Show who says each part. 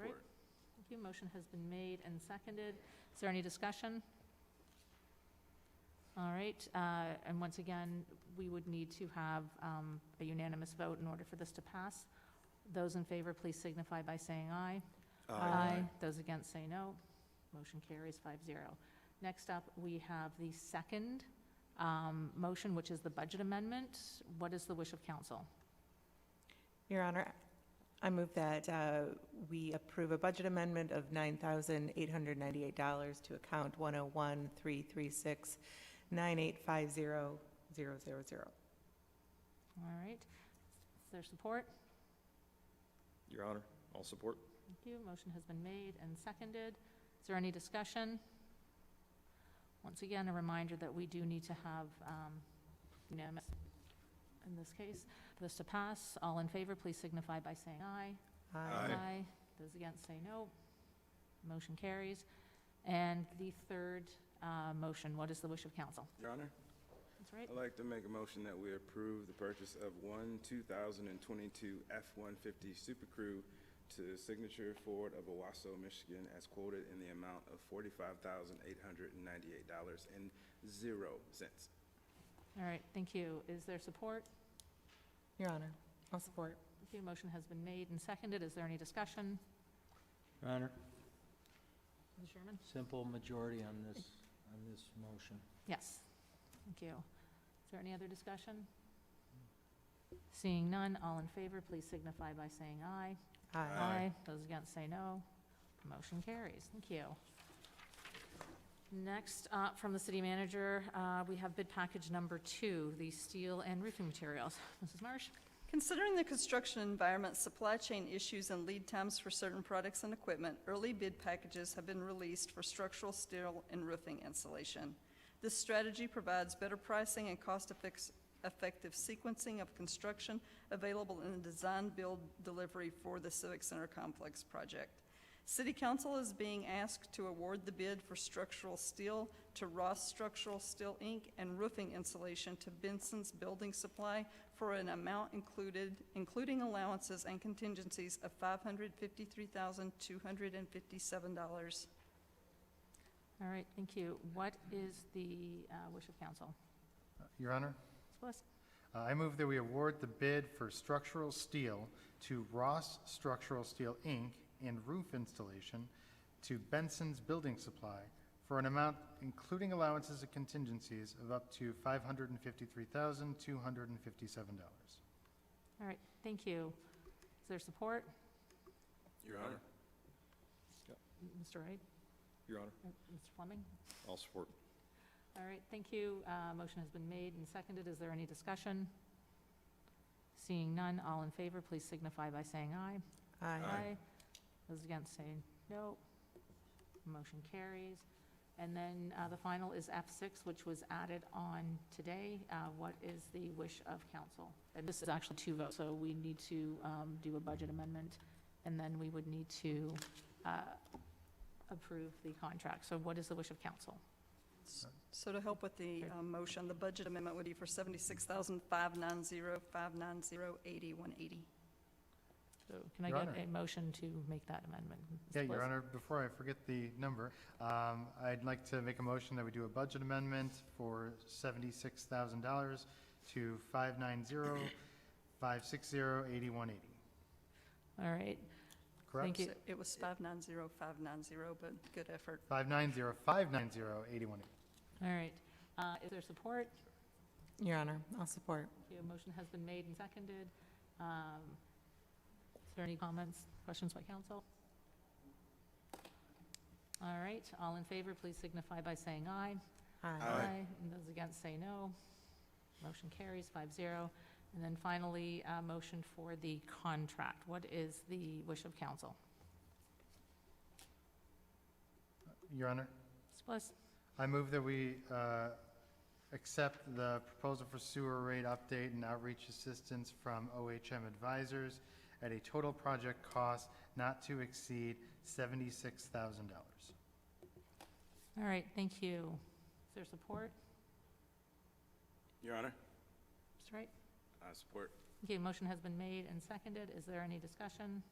Speaker 1: right? Thank you. Motion has been made and seconded. Is there any discussion? All right, uh, and once again, we would need to have um, a unanimous vote in order for this to pass. Those in favor, please signify by saying aye. Those against say no. Motion carries 5-0. Next up, we have the second um, motion, which is the budget amendment. What is the wish of council?
Speaker 2: Your Honor, I move that uh, we approve a budget amendment of $9,898 to account 101-336-9850000.
Speaker 1: All right, is there support?
Speaker 3: Your Honor, all support.
Speaker 1: Thank you. Motion has been made and seconded. Is there any discussion? Once again, a reminder that we do need to have um, unanimous, in this case, for this to pass. All in favor, please signify by saying aye.
Speaker 3: Aye.
Speaker 1: Those against say no. Motion carries. And the third uh, motion, what is the wish of council?
Speaker 4: Your Honor,
Speaker 1: That's right.
Speaker 4: I'd like to make a motion that we approve the purchase of one 2022 F-150 Super Crew to Signature Ford of Owasso, Michigan, as quoted in the amount of $45,898.00.
Speaker 1: All right, thank you. Is there support?
Speaker 2: Your Honor, I'll support.
Speaker 1: The motion has been made and seconded. Is there any discussion?
Speaker 5: Your Honor,
Speaker 1: Ms. Sherman?
Speaker 5: simple majority on this, on this motion.
Speaker 1: Yes, thank you. Is there any other discussion? Seeing none, all in favor, please signify by saying aye.
Speaker 4: Aye.
Speaker 1: Those against say no. Motion carries, thank you. Next, up from the city manager, uh, we have bid package number two, the steel and roofing materials. Mrs. Marsh?
Speaker 6: Considering the construction environment, supply chain issues, and lead times for certain products and equipment, early bid packages have been released for structural steel and roofing insulation. This strategy provides better pricing and cost-effective sequencing of construction available in the design, build, delivery for the Civic Center Complex project. City Council is being asked to award the bid for structural steel to Ross Structural Steel, Inc., and roofing insulation to Benson's Building Supply for an amount included, including allowances and contingencies of $553,257.
Speaker 1: All right, thank you. What is the uh, wish of council?
Speaker 7: Your Honor,
Speaker 1: Ms. Bliss?
Speaker 7: uh, I move that we award the bid for structural steel to Ross Structural Steel, Inc., and roof installation to Benson's Building Supply for an amount including allowances and contingencies of up to $553,257.
Speaker 1: All right, thank you. Is there support?
Speaker 4: Your Honor.
Speaker 1: Mr. Wright?
Speaker 3: Your Honor,
Speaker 1: Uh, Mr. Fleming?
Speaker 3: all support.
Speaker 1: All right, thank you. Uh, Motion has been made and seconded. Is there any discussion? Seeing none, all in favor, please signify by saying aye.
Speaker 2: Aye.
Speaker 1: Those against say no. Motion carries. And then uh, the final is F6, which was added on today. Uh, What is the wish of council? And this is actually two votes, so we need to um, do a budget amendment, and then we would need to uh, approve the contract. So what is the wish of council?
Speaker 6: So to help with the uh, motion, the budget amendment would be for $76,590,590,80,180.
Speaker 1: So can I
Speaker 7: Your
Speaker 1: get
Speaker 7: Honor.
Speaker 1: a motion to make that amendment? Ms.
Speaker 7: Yeah, Your
Speaker 1: Bliss?
Speaker 7: Honor, before I forget the number, um, I'd like to make a motion that we do a budget amendment for $76,000 to 590-560-8180,
Speaker 1: All right,
Speaker 7: correct?
Speaker 1: Thank you.
Speaker 6: So It was 590,590, but good effort.
Speaker 7: 590-590-8180.
Speaker 1: all right. Uh, Is there support?
Speaker 2: Your Honor, I'll support.
Speaker 1: Your motion has been made and seconded. Um, Is there any comments, questions by council? All right, all in favor, please signify by saying aye.
Speaker 4: Aye.
Speaker 1: And those against say no. Motion carries five zero. And then finally, a motion for the contract. What is the wish of council?
Speaker 7: Your Honor,
Speaker 1: Ms. Bliss?
Speaker 7: I move that we uh, accept the proposal for sewer rate update and outreach assistance from OHM Advisors at a total project cost not to exceed $76,000.
Speaker 1: All right, thank you. Is there support?
Speaker 4: Your Honor,
Speaker 1: Mr. Wright?
Speaker 4: I support.
Speaker 1: Okay, motion has been made and seconded. Is there any discussion?